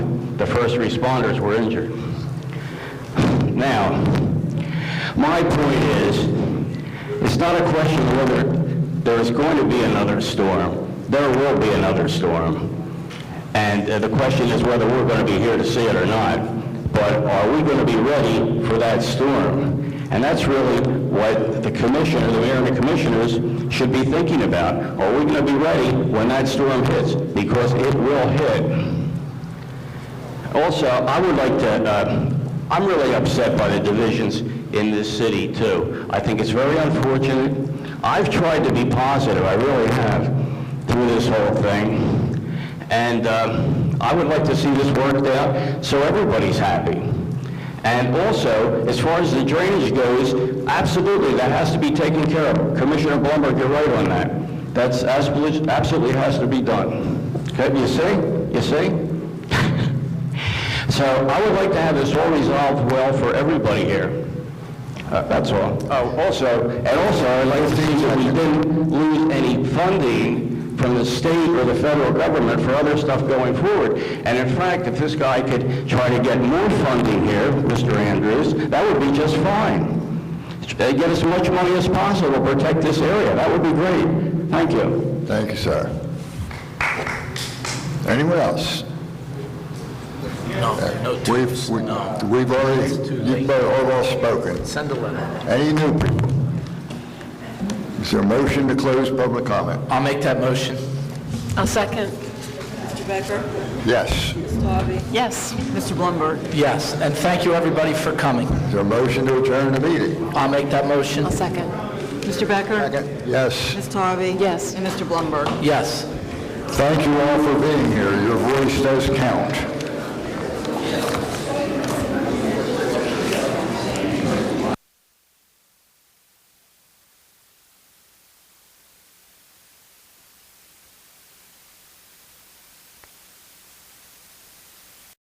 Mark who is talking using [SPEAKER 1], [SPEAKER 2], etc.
[SPEAKER 1] first responders were injured. Now, my point is, it's not a question of whether there is going to be another storm. There will be another storm. And uh, the question is whether we're going to be here to see it or not. But are we going to be ready for that storm? And that's really what the commissioner, the mayor and the commissioners should be thinking about. Are we going to be ready when that storm hits? Because it will hit. Also, I would like to, uh, I'm really upset by the divisions in this city, too. I think it's very unfortunate. I've tried to be positive, I really have, through this whole thing. And um, I would like to see this worked out so everybody's happy. And also, as far as the drainage goes, absolutely, that has to be taken care of. Commissioner Blumberg, you're right on that. That's absolutely absolutely has to be done. Okay, you see? You see? So I would like to have this all resolved well for everybody here. Uh, That's all. Oh, also, and also, I'd like to see that we didn't lose any funding from the state or the federal government for other stuff going forward. And in fact, if this guy could try to get more funding here, Mr. Andrews, that would be just fine. Uh, Get as much money as possible, to protect this area, that would be great. Thank you.
[SPEAKER 2] Thank you, sir. Anyone else?
[SPEAKER 3] No, no
[SPEAKER 2] We've,
[SPEAKER 3] tips,
[SPEAKER 2] we-
[SPEAKER 3] no.
[SPEAKER 2] we've already,
[SPEAKER 3] too
[SPEAKER 2] you've
[SPEAKER 3] late.
[SPEAKER 2] both all spoken.
[SPEAKER 3] Send a letter.
[SPEAKER 2] Any new people? Is there a motion to close public comment?
[SPEAKER 3] I'll make that motion.
[SPEAKER 4] I'll second.
[SPEAKER 5] Mr. Becker?
[SPEAKER 2] Yes. Is
[SPEAKER 5] Ms. Tawby?
[SPEAKER 4] Yes.
[SPEAKER 6] Mr. Blumberg?
[SPEAKER 3] Yes, and thank you, everybody, for coming.
[SPEAKER 2] there a motion to adjourn the meeting?
[SPEAKER 3] I'll make that motion.
[SPEAKER 4] I'll second.
[SPEAKER 6] Mr. Becker?
[SPEAKER 2] Yes.
[SPEAKER 5] Ms. Tawby?
[SPEAKER 4] Yes.
[SPEAKER 6] And Mr. Blumberg?
[SPEAKER 3] Yes.
[SPEAKER 2] Thank you all for being here. Your voice does count.